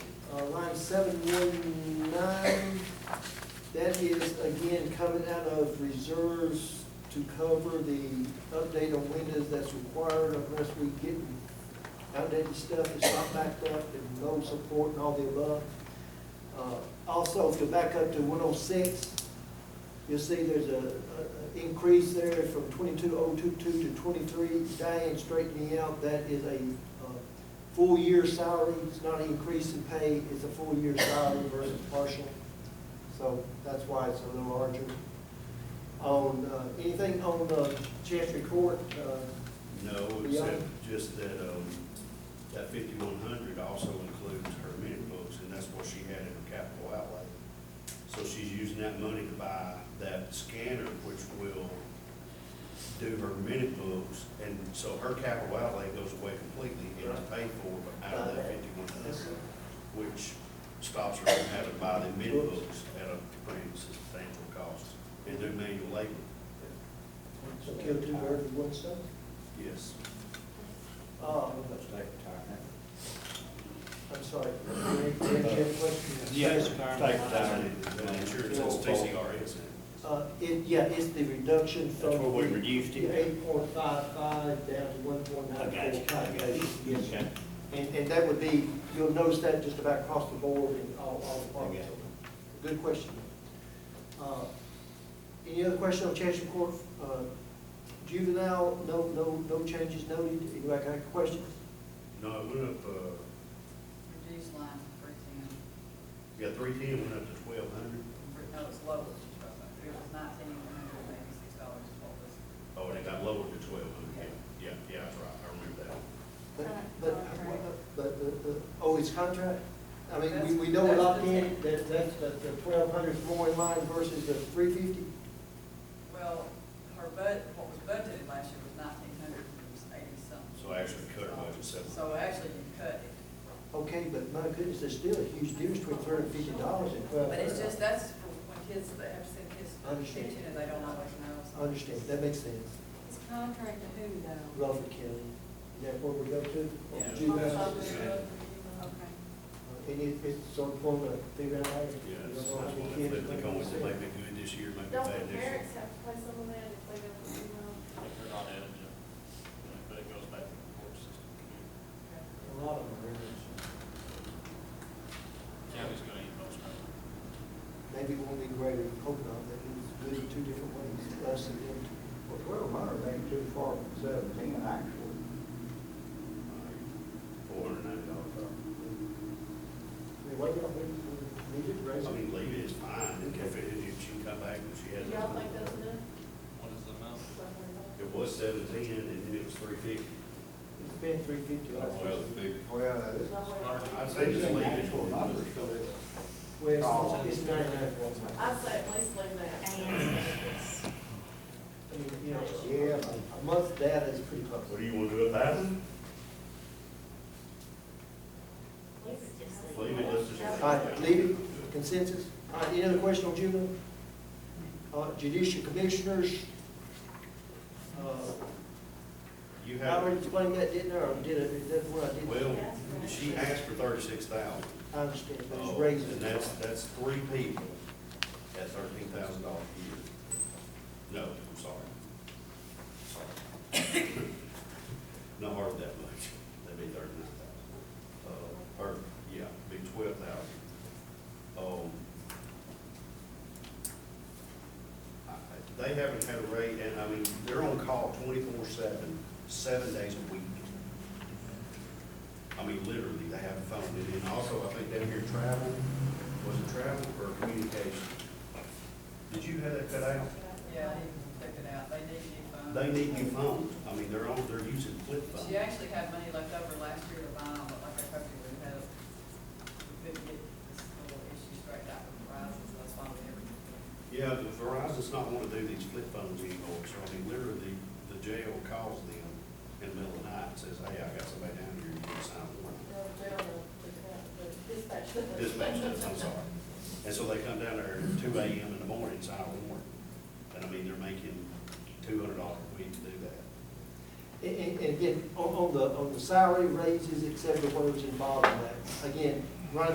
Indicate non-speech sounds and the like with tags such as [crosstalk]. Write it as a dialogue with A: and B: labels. A: uh, line seven one nine, that is again coming out of reserves to cover the update on windows that's required unless we get outdated stuff that's not backed up and no support and all the above. Uh, Also, if you back up to one oh six, you'll see there's a, a- a increase there from twenty-two oh two-two to twenty-three. Diane straightened me out, that is a, uh, full year salary, it's not an increase in pay, it's a full year salary versus partial. So that's why it's a little larger. On, uh, anything on the Chancery Court, uh,
B: No,
A: Yeah.
B: except just that, um, that fifty-one hundred also includes her minute books, and that's what she had in her capital outlay. So she's using that money to buy that scanner, which will do her minute books, and so her capital outlay goes away completely, and it's paid for out of that fifty-one
A: that's,
B: hundred, which stops her from having to buy the minute books at a pretty substantial cost, and do manual labor,
A: so kill two birds with one stone.
B: yes.
A: Uh, I'm sorry, Greg, Greg, you have a question?
C: Yes,
B: The Insurance, it's TCR, isn't it?
A: Uh, it, yeah, it's the reduction from.
C: That's where we reduced it.
A: Eight point five five down to one point
C: I
A: nine
C: got you,
A: four
C: I
A: five.
C: got you.
A: Yes,
C: Okay.
A: and, and that would be, you'll notice that just about across the board in all, all
C: I
A: departments.
C: got
A: Good question. Uh, Any other question on Chancery Court, uh, juvenile, no, no, no changes noted, anybody got questions?
B: No, it went up, uh,
D: Reduced line for example,
B: yeah, three ten went up to twelve hundred.
D: no, it's lower than twelve hundred, it was nineteen hundred and eighty-six dollars is what was.
B: Oh, and it got lowered to twelve hundred, yeah, yeah, yeah, that's right, I remember that.
A: But,
D: Con-
A: but,
D: contract.
A: but, the- the- oh, it's contract? I mean, we,
D: That's-
A: we know a
D: that's
A: lot
D: the
A: in,
D: ten.
A: that, that's the, the twelve hundred more in line versus the three fifty?
D: Well, her bud, what was budgeted last year was nineteen hundred and eighty something.
B: So actually cut it by just seven.
D: So actually you cut it,
A: Okay, but my goodness, there's still a huge difference between three hundred and fifty dollars and twelve
D: but
A: hundred.
D: it's just, that's for when kids, they have to send kids
A: I understand.
D: teaching and they don't always know.
A: I understand, that makes sense.
E: It's contract to who though?
A: Rutherford County, is that where we go to?
B: Yeah.
A: Juvenile?
B: Yeah.
E: Okay.
A: Uh, And it, it's sort of form of figure out. how you-
B: Yeah,
A: you
B: that's
A: know, how
B: that's
A: many
B: one of the
A: kids
B: flip,
A: are
B: they
A: gonna
B: always
A: see.
B: make it good this year, make it
F: Don't
B: bad next
F: the
B: year.
F: parents have to play some of that if they go to the email?
C: They're not eligible, but it goes back to the court system.
A: A lot of them are in it.
C: County's gonna eat most of
A: maybe it won't be greater, we hope not, that it was good in two different ways, us and them.
G: Well, twelve hundred ain't too far from seventeen, actually.
B: Four hundred ninety dollars.
A: I mean, what do y'all think, we need to raise
B: I
A: it?
B: mean, leave it, it's fine, and if it, if she come back and she has.
F: Do y'all think that's enough?
C: What is the amount?
B: It was seventeen, and then it was three fifty.
A: It's been three fifty,
B: Oh,
A: I think.
G: Well, that is.
B: I'd say just leave it.
G: Actual numbers, so it's- Oh,
A: Well, it's it's ninety-nine for one time.
F: I'd say at least leave that. And.
A: I mean, you know,
G: Yeah,
A: a month data is pretty close.
B: What do you wanna do, a thousand? Leave it, let's just.
A: All right, leave it, consensus. All right, any other question on juvenile? Uh, judicial commissioners, uh,
B: You
A: I
B: have,
A: already explained that, didn't I, or did I, is that what I did?
B: well, she asked for thirty-six thousand.
A: I understand, but it's
B: Oh,
A: raising.
B: And that's, that's three people at thirteen thousand dollars a year. No, I'm sorry. [coughs] Sorry. Not hardly that much, that'd be thirty-nine thousand. Uh, or, yeah, be twelve thousand. Um, I- I- they haven't had a rate, and I mean, they're on call twenty-four seven, seven days a week. I mean, literally, they have a phone, and then also, I think down here, travel, was it travel or communication? Did you have that cut out?
D: Yeah, I didn't take it out, they need new phones.
B: They need new phones, I mean, they're on, they're using flip
D: She
B: phones.
D: actually had money left over last year to buy them, but like I told you, we had, we couldn't get this little issue straightened out with Verizon, so that's why we never. did it.
B: Yeah, but Verizon's not wanna do these flip phones anymore, so I mean, literally, the jail calls them in the middle of the night and says, hey, I got somebody down here, you can sign a warrant. Dispatch does,
F: [laughs]
B: I'm sorry. And so they come down there at two AM in the morning, sign a warrant, and I mean, they're making two hundred dollars a week to do that.
A: And, and- and again, on, on the, on the salary raises, et cetera, what was involved in that, again,